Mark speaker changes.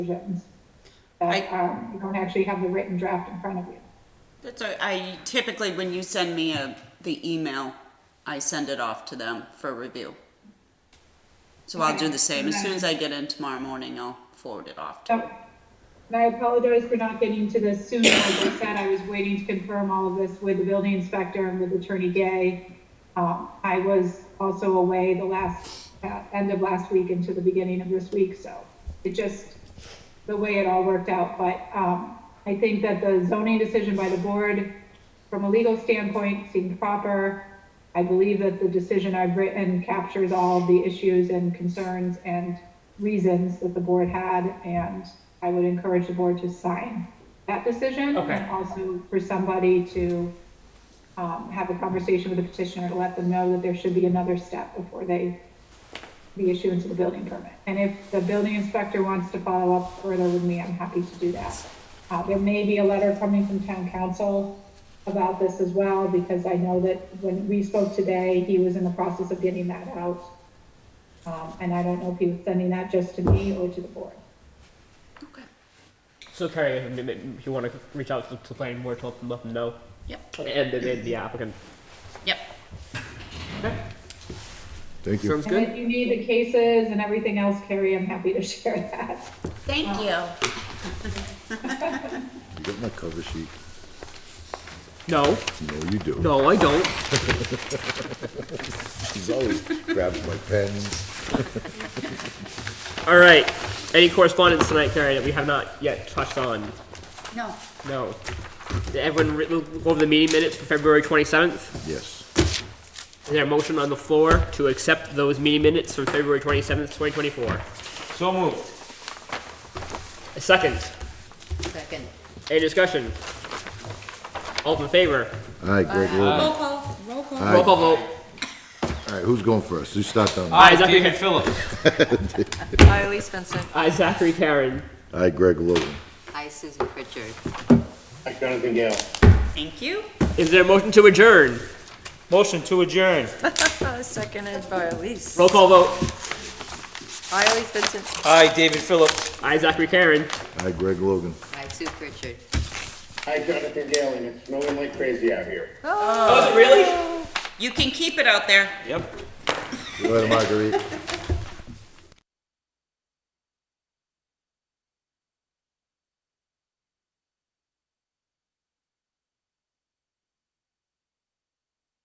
Speaker 1: decisions that
Speaker 2: I-
Speaker 1: are, you don't actually have the written draft in front of you.
Speaker 2: That's, all- I typically, when you send me a, the email, I send it off to them for review. So I'll do the same. As soon as I get in tomorrow morning, I'll forward it off. to
Speaker 1: So, and I apologize for not getting to this sooner. As I said, I was waiting to confirm all of this with the building inspector and with Attorney Gay. Um, I was also away the last, uh, end of last week into the beginning of this week, so it just, the way it all worked out. But, um, I think that the zoning decision by the board, from a legal standpoint, seemed proper. I believe that the decision I've written captures all the issues and concerns and reasons that the board had, and I would encourage the board to sign that decision.
Speaker 3: Okay.
Speaker 1: And also for somebody to, um, have a conversation with the petitioner to let them know that there should be another step before they, the issuance of the building permit. And if the building inspector wants to follow up further with me, I'm happy to do that. Uh, there may be a letter coming from town council about this as well, because I know that when we spoke today, he was in the process of getting that out. Um, and I don't know if he was sending that just to me or to the board.
Speaker 2: Okay,
Speaker 3: So Carrie, if if you want to reach out to the planning board to let them, let them know,
Speaker 2: yep,
Speaker 3: and then the applicant.
Speaker 2: yep.
Speaker 4: Thank you.
Speaker 3: Sounds
Speaker 1: And if
Speaker 3: good.
Speaker 1: you need the cases and everything else, Carrie, I'm happy to share that.
Speaker 2: Thank you.
Speaker 4: You got my cover sheet.
Speaker 3: No,
Speaker 4: No, you do.
Speaker 3: no, I don't.
Speaker 4: She's always grabs my pens.
Speaker 3: All right. Any correspondence tonight, Carrie, that we have not yet touched on?
Speaker 2: No,
Speaker 3: No. Did everyone re- look over the meeting minutes for February 27th?
Speaker 4: Yes.
Speaker 3: Is there a motion on the floor to accept those meeting minutes for February 27th, 2024?
Speaker 5: So moved.
Speaker 3: A second.
Speaker 2: second.
Speaker 3: Any discussion? All in favor?
Speaker 4: Aye, Greg Logan.
Speaker 2: Roll call, roll call.
Speaker 3: Roll call vote.
Speaker 4: All right, who's going first? You start down. there.
Speaker 3: Aye,
Speaker 5: Aye,
Speaker 3: Zachary.
Speaker 5: David Phillips.
Speaker 6: Hi, Elise Vincent.
Speaker 3: Aye, Zachary Karen.
Speaker 4: Aye, Greg Logan.
Speaker 6: Hi, Susan Pritchard.
Speaker 7: Hi, Jonathan Gale.
Speaker 2: Thank you.
Speaker 3: Is there a motion to adjourn?
Speaker 5: Motion to adjourn.
Speaker 6: Uh, Seconded by Elise.
Speaker 3: Roll call vote.
Speaker 6: Hi, Elise Vincent.
Speaker 5: Aye, David Phillips.
Speaker 3: Aye, Zachary Karen.
Speaker 4: Aye, Greg Logan.
Speaker 6: Hi, Sue Pritchard.
Speaker 7: Hi, Jonathan Gale, and it's snowing like crazy out here.
Speaker 3: Oh, really?
Speaker 2: You can keep it out there.
Speaker 4: Good night, Marguerite.